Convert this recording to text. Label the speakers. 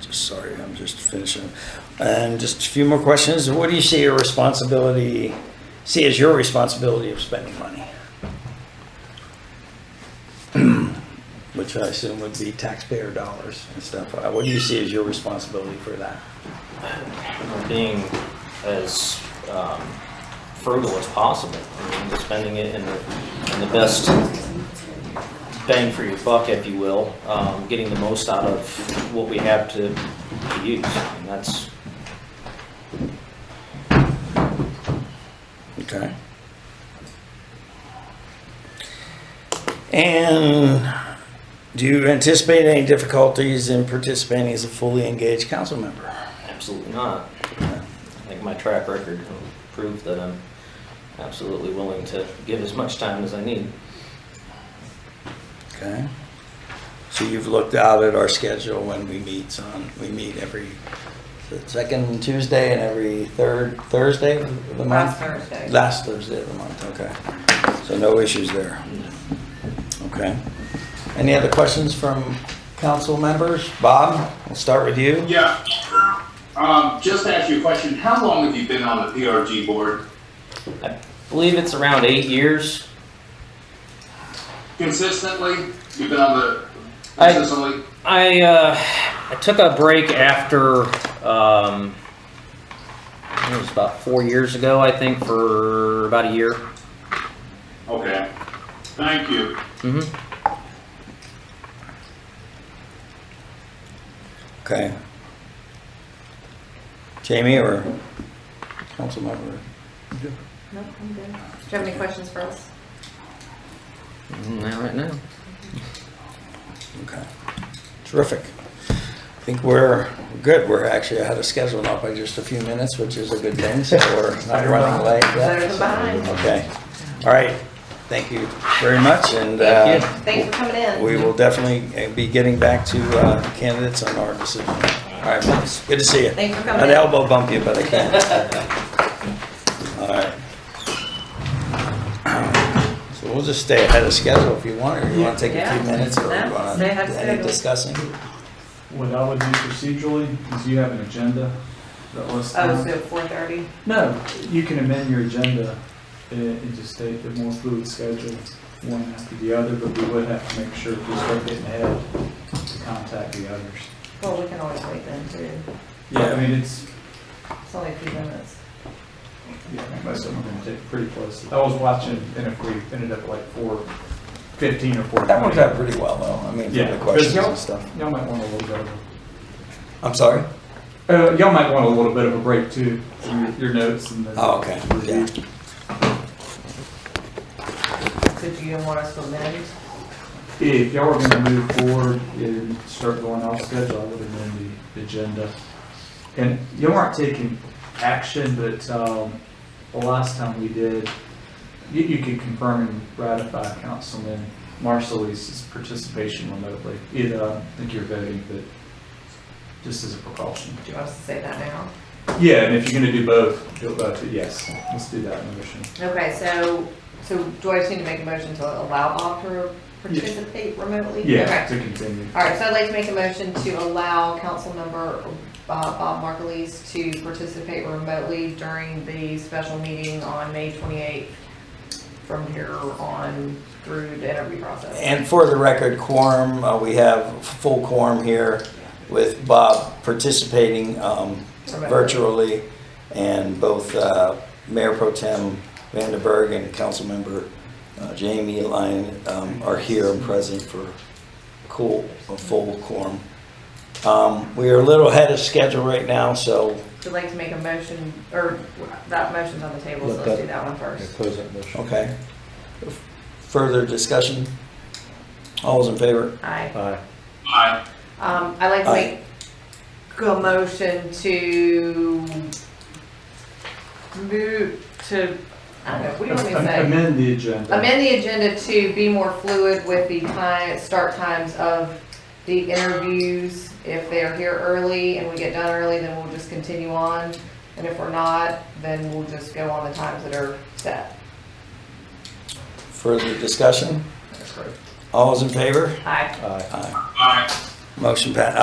Speaker 1: Just sorry, I'm just finishing. And just a few more questions. What do you see your responsibility, see as your responsibility of spending money? Which I assume would be taxpayer dollars and stuff. Uh, What do you see as your responsibility for that?
Speaker 2: being as um, frugal as possible, I mean, just spending it in the, in the best bang for your buck, if you will, um, getting the most out of what we have to to use, and that's,
Speaker 1: Okay. And do you anticipate any difficulties in participating as a fully engaged council member?
Speaker 2: absolutely not. I think my track record proved that I'm absolutely willing to give as much time as I need.
Speaker 1: Okay. So you've looked out at our schedule when we meet on, we meet every second Tuesday and every third Thursday of the month?
Speaker 3: Last Thursday.
Speaker 1: Last Thursday of the month, okay. So no issues there. Okay. Any other questions from council members? Bob, we'll start with you.
Speaker 4: Yeah. Um, just to ask you a question, how long have you been on the PRG board?
Speaker 2: I believe it's around eight years.
Speaker 4: Consistently? You've been on the,
Speaker 2: I-
Speaker 4: consistently?
Speaker 2: I uh, I took a break after um, it was about four years ago, I think, for about a year.
Speaker 4: Okay. Thank you.
Speaker 2: hmm
Speaker 1: Okay. Jamie or council member?
Speaker 3: No, I'm good. Do you have any questions for us?
Speaker 2: Not right now.
Speaker 1: Okay. Terrific. I think we're good. We're actually ahead of schedule now by just a few minutes, which is a good thing, so we're not running late
Speaker 3: Better
Speaker 1: yet.
Speaker 3: than behind.
Speaker 1: Okay. All right. Thank you very much, and
Speaker 2: Thank you.
Speaker 1: uh,
Speaker 3: Thanks for coming in.
Speaker 1: we will definitely be getting back to uh, candidates on our decision. All right, folks. good to see you.
Speaker 3: Thanks for coming
Speaker 1: I'd
Speaker 3: in.
Speaker 1: elbow bump you, but I can't. All right. So we'll just stay ahead of schedule if you want, or you want to take a
Speaker 3: Yeah.
Speaker 1: few minutes, or
Speaker 3: Yeah,
Speaker 1: you want
Speaker 3: stay ahead of
Speaker 1: any
Speaker 3: schedule.
Speaker 1: discussing?
Speaker 5: What I would do procedurally is you have an agenda that lists.
Speaker 3: Oh, so four thirty?
Speaker 5: No, you can amend your agenda and, and just state the more fluid schedule, one after the other, but we would have to make sure if we start getting ahead to contact the others.
Speaker 3: Well, we can always wait then too.
Speaker 5: Yeah, I mean, it's,
Speaker 3: It's only a few minutes.
Speaker 5: yeah, I think most of them are gonna take pretty close. I was watching, and if we ended up at like four fifteen or four twenty.
Speaker 1: That worked out pretty well, though, I mean, for
Speaker 5: Yeah.
Speaker 1: the questions
Speaker 5: Y'all-
Speaker 1: and stuff.
Speaker 5: Y'all might want a little bit of,
Speaker 1: I'm sorry?
Speaker 5: a- uh, y'all might want a little bit of a break too, from your, your notes and then.
Speaker 1: Oh, okay, yeah.
Speaker 3: So do you want us to amend?
Speaker 5: If y'all were gonna move forward and start going off schedule, I would amend the agenda. And y'all aren't taking action, but, um, the last time we did, you, you could confirm and ratify Councilman Marsalis's participation remotely. It, uh, I think you're voting, but just as a precaution.
Speaker 3: Do you want us to say that now?
Speaker 5: Yeah, and if you're gonna do both, do both, yes, let's do that motion.
Speaker 3: Okay, so, so do I just need to make a motion to allow all to participate remotely?
Speaker 5: Yeah,
Speaker 3: Okay.
Speaker 5: to continue.
Speaker 3: All right, so I'd like to make a motion to allow Councilmember uh, Bob Margulies to participate remotely during the special meeting on May 28th from here on through the interview process.
Speaker 1: And for the record, quorum, uh, we have full quorum here with Bob participating um,
Speaker 3: Remotely.
Speaker 1: virtually, and both uh, Mayor Pro Tem Vandenberg and Councilmember uh, Jamie Lyon um, are here and present for cool, a full quorum. Um, We are a little ahead of schedule right now, so,
Speaker 3: Would like to make a motion, or that motion's on the table, so let's do that one first.
Speaker 6: Close that motion.
Speaker 1: okay. Further discussion? All's in favor?
Speaker 3: Aye.
Speaker 6: Aye.
Speaker 4: Bye.
Speaker 3: Um, I'd like to
Speaker 1: Aye.
Speaker 3: make a motion to move to, I don't know, what do you want me to say?
Speaker 5: Amend the agenda.
Speaker 3: amend the agenda to be more fluid with the time, start times of the interviews. If they are here early and we get done early, then we'll just continue on. And if we're not, then we'll just go on the times that are set.
Speaker 1: Further discussion?
Speaker 3: That's great.
Speaker 1: All's in favor?
Speaker 3: Aye.
Speaker 6: Aye.
Speaker 1: Aye. Motion pa,